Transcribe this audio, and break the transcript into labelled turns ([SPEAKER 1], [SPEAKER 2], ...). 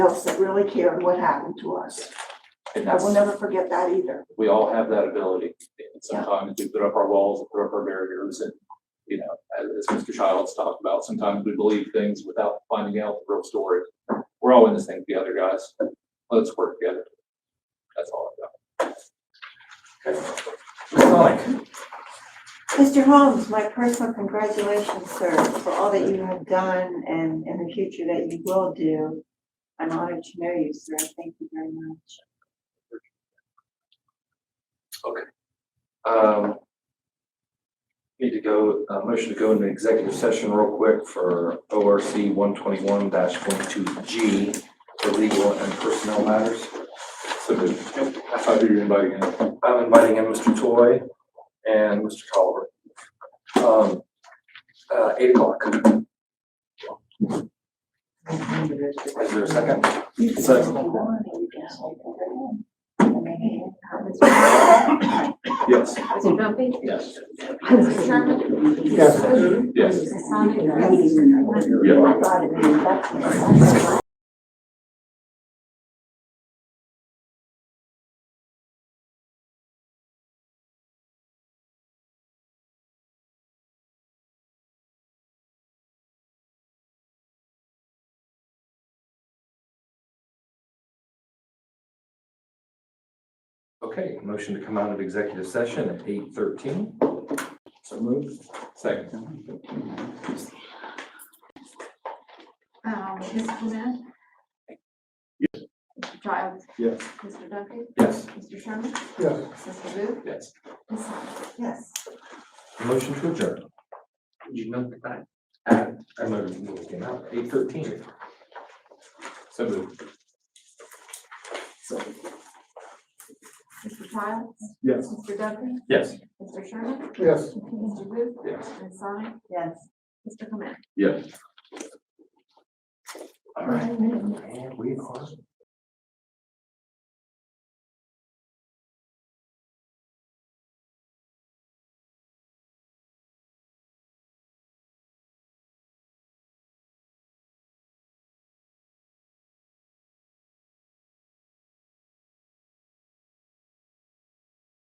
[SPEAKER 1] else that really cared what happened to us.
[SPEAKER 2] And
[SPEAKER 1] I
[SPEAKER 2] that's,
[SPEAKER 1] will never forget that either.
[SPEAKER 2] we all have that ability. And
[SPEAKER 1] Yeah.
[SPEAKER 2] Sometimes we put up our walls, we put up our barriers and, you know, as as Mr. Childs talked about, sometimes we believe things without finding out the real story. We're all in this thing together, guys. Let's work together. That's all I've got. Okay. Sonic,
[SPEAKER 3] Mr. Holmes, my personal congratulations, sir, for all that you have done and in the future that you will do. I'm honored to know you, sir. Thank you very much.
[SPEAKER 4] Um, Need to go, uh, motion to go into executive session real quick for ORC one twenty-one dash G for legal and personnel matters.
[SPEAKER 2] so moved. I thought you were inviting in.
[SPEAKER 4] I'm inviting in Mr. Toy and Mr. Tolliver. Um, uh, eight o'clock. Is there a second?
[SPEAKER 2] Yes,
[SPEAKER 5] Mr. Duffy?
[SPEAKER 2] yes,
[SPEAKER 5] Mr. Sherman?
[SPEAKER 4] Yes.
[SPEAKER 2] yes.
[SPEAKER 5] Mr. Sonic?
[SPEAKER 2] Yeah.
[SPEAKER 3] I thought it was- that's-
[SPEAKER 4] Okay, motion to come out of executive session at eight thirteen. So moved.
[SPEAKER 2] Second,
[SPEAKER 5] Um, Ms. Clement? Mr. Childs?
[SPEAKER 2] Yes.
[SPEAKER 5] Mr. Duffy?
[SPEAKER 4] Yes.
[SPEAKER 5] Mr. Sherman?
[SPEAKER 2] Yes.
[SPEAKER 5] Mr. Booth?
[SPEAKER 2] yes.
[SPEAKER 5] Ms. Sonic?
[SPEAKER 3] Yes.
[SPEAKER 4] Motion to adjourn. You know the time. Uh, I remember when it came out, eight thirteen.
[SPEAKER 2] So moved.
[SPEAKER 5] Mr. Childs?
[SPEAKER 2] Yes.
[SPEAKER 5] Mr. Duffy?
[SPEAKER 4] Yes.
[SPEAKER 5] Mr. Sherman?
[SPEAKER 2] Yes.
[SPEAKER 5] Mr. Booth?
[SPEAKER 2] Yes.
[SPEAKER 5] Ms. Sonic?
[SPEAKER 3] Yes.
[SPEAKER 5] Mr. Clement?
[SPEAKER 2] Yes.
[SPEAKER 4] All right. And we are.